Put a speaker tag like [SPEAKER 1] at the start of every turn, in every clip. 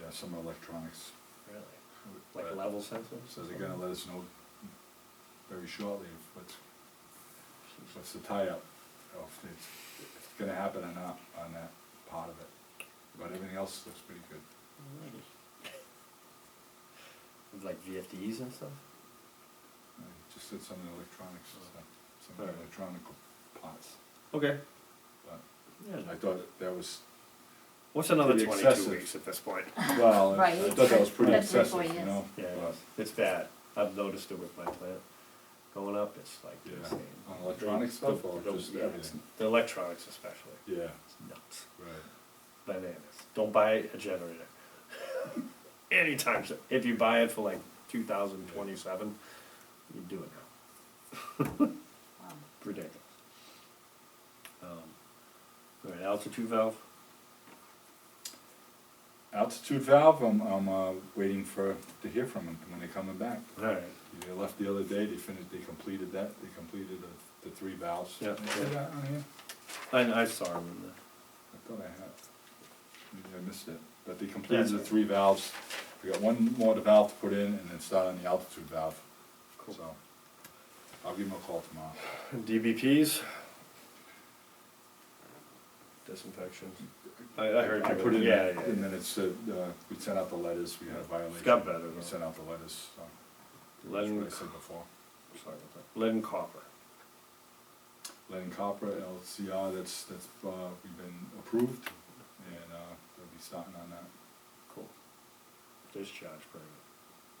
[SPEAKER 1] yeah, some electronics.
[SPEAKER 2] Really?
[SPEAKER 1] but
[SPEAKER 2] Like level sensors?
[SPEAKER 1] So they're gonna let us know very shortly if what's, what's the tie-up, or if it's, if it's gonna happen or not on that part of it. But everything else looks pretty good.
[SPEAKER 2] Alrighty. With like VFDs and stuff?
[SPEAKER 1] I just did some of the electronics, so, some of the
[SPEAKER 2] Alright.
[SPEAKER 1] electronic parts,
[SPEAKER 2] Okay.
[SPEAKER 1] but
[SPEAKER 2] Yeah.
[SPEAKER 1] I thought that- that was,
[SPEAKER 2] What's another
[SPEAKER 1] pretty
[SPEAKER 2] twenty-two
[SPEAKER 1] excessive.
[SPEAKER 2] weeks at this point?
[SPEAKER 1] well, I
[SPEAKER 3] Right,
[SPEAKER 1] I thought that was pretty
[SPEAKER 3] that's before,
[SPEAKER 1] excessive, you
[SPEAKER 3] yes.
[SPEAKER 1] know?
[SPEAKER 2] Yeah,
[SPEAKER 1] but-
[SPEAKER 2] it's- it's bad. I've noticed it with my plant. Going up, it's like
[SPEAKER 1] Yeah,
[SPEAKER 2] insane.
[SPEAKER 1] on electronic stuff or
[SPEAKER 2] The- the-
[SPEAKER 1] just
[SPEAKER 2] yeah, it's-
[SPEAKER 1] everything?
[SPEAKER 2] The electronics especially.
[SPEAKER 1] Yeah,
[SPEAKER 2] It's nuts.
[SPEAKER 1] right.
[SPEAKER 2] Bananas. Don't buy a generator. Anytime soon. If you buy it for like two thousand twenty-seven, you do it now.
[SPEAKER 3] Wow.
[SPEAKER 2] ridiculous. Um, all right, altitude valve.
[SPEAKER 1] Altitude valve, I'm, I'm, uh, waiting for, to hear from them when they're coming back.
[SPEAKER 2] All right.
[SPEAKER 1] They left the other day, they finished, they completed that, they completed the, the three valves.
[SPEAKER 2] Yeah.
[SPEAKER 1] Did I say that on here?
[SPEAKER 2] I, I saw him in the.
[SPEAKER 1] I thought I had, maybe I missed it, but they completed
[SPEAKER 2] That's
[SPEAKER 1] the
[SPEAKER 2] right.
[SPEAKER 1] three valves. We got one more valve to put in and then start on the altitude valve,
[SPEAKER 2] Cool.
[SPEAKER 1] so. I'll give them a call tomorrow.
[SPEAKER 2] DBPs. Disinfection. I, I heard
[SPEAKER 1] I
[SPEAKER 2] you
[SPEAKER 1] put
[SPEAKER 2] were-
[SPEAKER 1] it in,
[SPEAKER 2] yeah, yeah,
[SPEAKER 1] and
[SPEAKER 2] yeah.
[SPEAKER 1] then it's, uh, uh, we sent out the letters, we had a violation.
[SPEAKER 2] got better, though.
[SPEAKER 1] We sent out the letters, so.
[SPEAKER 2] Lead
[SPEAKER 1] That's
[SPEAKER 2] and,
[SPEAKER 1] what I said before.
[SPEAKER 2] sorry about that. lead and copper.
[SPEAKER 1] Lead and copper, LCR, that's, that's, uh, we've been approved, and, uh, we'll be starting on that.
[SPEAKER 2] Cool. Discharge permit.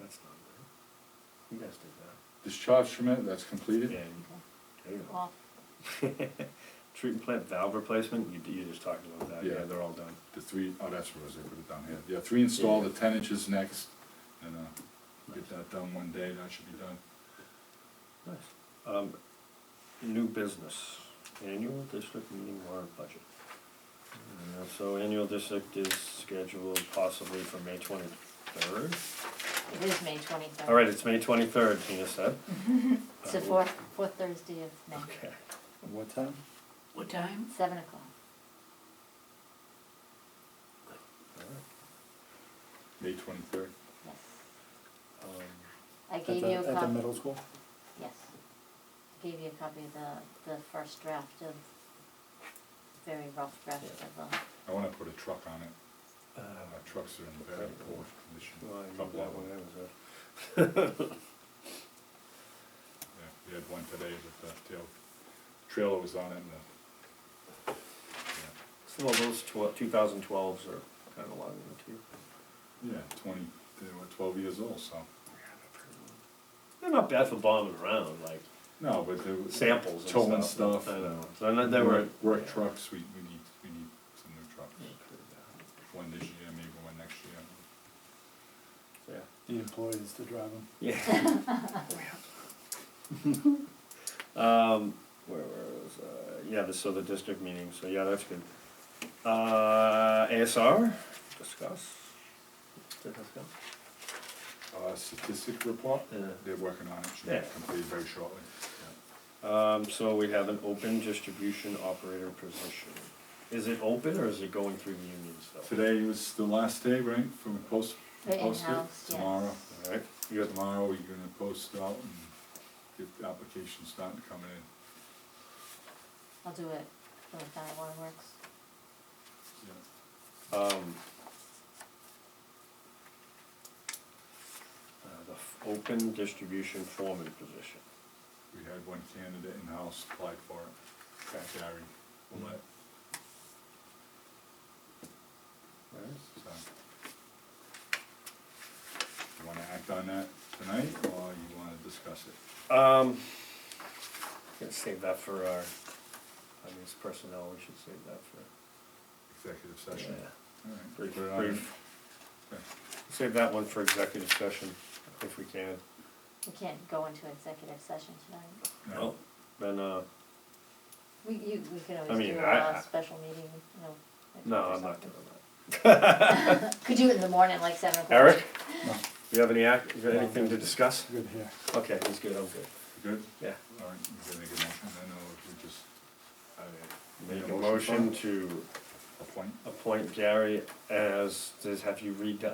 [SPEAKER 2] That's not good. You guys did
[SPEAKER 1] Discharge permit, that's
[SPEAKER 2] that.
[SPEAKER 1] completed?
[SPEAKER 2] Yeah. you-
[SPEAKER 3] Okay.
[SPEAKER 2] There you go.
[SPEAKER 3] Well,
[SPEAKER 2] Treatment plant valve replacement. You, you just talked about that.
[SPEAKER 1] Yeah.
[SPEAKER 2] yeah they're all done.
[SPEAKER 1] The three, oh, that's where I was, I put it down here. Yeah, three installed, the ten inches next, and, uh, get that done one day, that should be done.
[SPEAKER 2] Nice. Um, new business, annual district meeting warrant budget. Uh, so annual district is scheduled possibly for May twenty-third.
[SPEAKER 3] it is May twenty-third.
[SPEAKER 2] All right, it's May twenty-third, Tina said.
[SPEAKER 3] It's the
[SPEAKER 2] Uh,
[SPEAKER 3] fourth, fourth Thursday of May,
[SPEAKER 2] Okay,
[SPEAKER 1] What time?
[SPEAKER 4] What time?
[SPEAKER 3] seven o'clock.
[SPEAKER 2] all right.
[SPEAKER 1] May twenty-third.
[SPEAKER 3] Yes.
[SPEAKER 2] Um,
[SPEAKER 3] I
[SPEAKER 5] At
[SPEAKER 3] gave
[SPEAKER 5] the,
[SPEAKER 3] you a
[SPEAKER 5] at the
[SPEAKER 3] copy,
[SPEAKER 5] middle school?
[SPEAKER 3] yes. I Gave you a copy of the, the first draft of, very rough draft of, uh,
[SPEAKER 1] I wanna put a truck on it.
[SPEAKER 2] uh,
[SPEAKER 1] Our trucks are in very poor condition.
[SPEAKER 2] well, I knew
[SPEAKER 1] Couple
[SPEAKER 2] that
[SPEAKER 1] of
[SPEAKER 2] one,
[SPEAKER 1] them.
[SPEAKER 2] that was a-
[SPEAKER 1] Yeah, we had one today, but the tail, trailer was on it and the. yeah.
[SPEAKER 2] So well, those twelve, two thousand twelves are kinda long too.
[SPEAKER 1] Yeah, twenty, they were twelve years old, so,
[SPEAKER 2] They're not bad for bombing around, like
[SPEAKER 1] no, but they were.
[SPEAKER 2] samples and stuff.
[SPEAKER 1] Towing stuff.
[SPEAKER 2] I know, so not- they were.
[SPEAKER 1] Work- Work
[SPEAKER 2] yeah.
[SPEAKER 1] trucks, we, we need, we need some new trucks,
[SPEAKER 2] Yeah.
[SPEAKER 1] one this year, maybe one next year.
[SPEAKER 5] The employees to drive them.
[SPEAKER 2] Yeah. Um, where was, uh, yeah, the, so the district meeting, so yeah, that's good. Uh, ASR, discuss. Did discuss?
[SPEAKER 1] Uh, statistic report,
[SPEAKER 2] Yeah.
[SPEAKER 1] they're working on it, should
[SPEAKER 2] Yeah.
[SPEAKER 1] be completed very shortly.
[SPEAKER 2] Um, so we have an open distribution operator position. Is it open or is it going through the union still?
[SPEAKER 1] Today was the last day, right, for the post,
[SPEAKER 3] the
[SPEAKER 1] post it,
[SPEAKER 3] in-house, yes.
[SPEAKER 1] tomorrow,
[SPEAKER 2] Alright, you have,
[SPEAKER 1] tomorrow we're gonna post out and get the applications starting coming in,
[SPEAKER 3] I'll do it when the final one works.
[SPEAKER 1] yeah.
[SPEAKER 2] um. Uh, the f- open distribution foreman position.
[SPEAKER 1] We had one candidate in-house applied for it, Gary Willett,
[SPEAKER 2] Alright.
[SPEAKER 1] so. You wanna act on that tonight, or you wanna discuss it?
[SPEAKER 2] Um, gonna save that for our, I mean, it's personnel, we should save that for.
[SPEAKER 1] Executive session?
[SPEAKER 2] Yeah,
[SPEAKER 1] Alright,
[SPEAKER 2] Brief,
[SPEAKER 1] put it on
[SPEAKER 2] brief.
[SPEAKER 1] Okay.
[SPEAKER 2] Save that one for executive session, if we can.
[SPEAKER 3] We can't go into executive session tonight.
[SPEAKER 1] there.
[SPEAKER 2] Well, Then, uh,
[SPEAKER 3] We, you, we can
[SPEAKER 2] I
[SPEAKER 3] always
[SPEAKER 2] mean,
[SPEAKER 3] do
[SPEAKER 2] I- I-
[SPEAKER 3] a special meeting, you know. like
[SPEAKER 2] no,
[SPEAKER 3] or
[SPEAKER 2] I'm not
[SPEAKER 3] something.
[SPEAKER 2] doing that.
[SPEAKER 3] Could do it in the morning, like seven o'clock.
[SPEAKER 2] Eric,
[SPEAKER 5] No,
[SPEAKER 2] you have any act, you got
[SPEAKER 5] No.
[SPEAKER 2] anything to discuss?
[SPEAKER 5] good here.
[SPEAKER 2] Okay, he's good, I'm good,
[SPEAKER 1] Good,
[SPEAKER 2] yeah.
[SPEAKER 1] alright, you gonna make a motion then, or we just
[SPEAKER 2] Make
[SPEAKER 1] Make a
[SPEAKER 2] a
[SPEAKER 1] motion for
[SPEAKER 2] motion
[SPEAKER 1] it?
[SPEAKER 2] to
[SPEAKER 1] appoint?
[SPEAKER 2] appoint Gary as, does, have you read,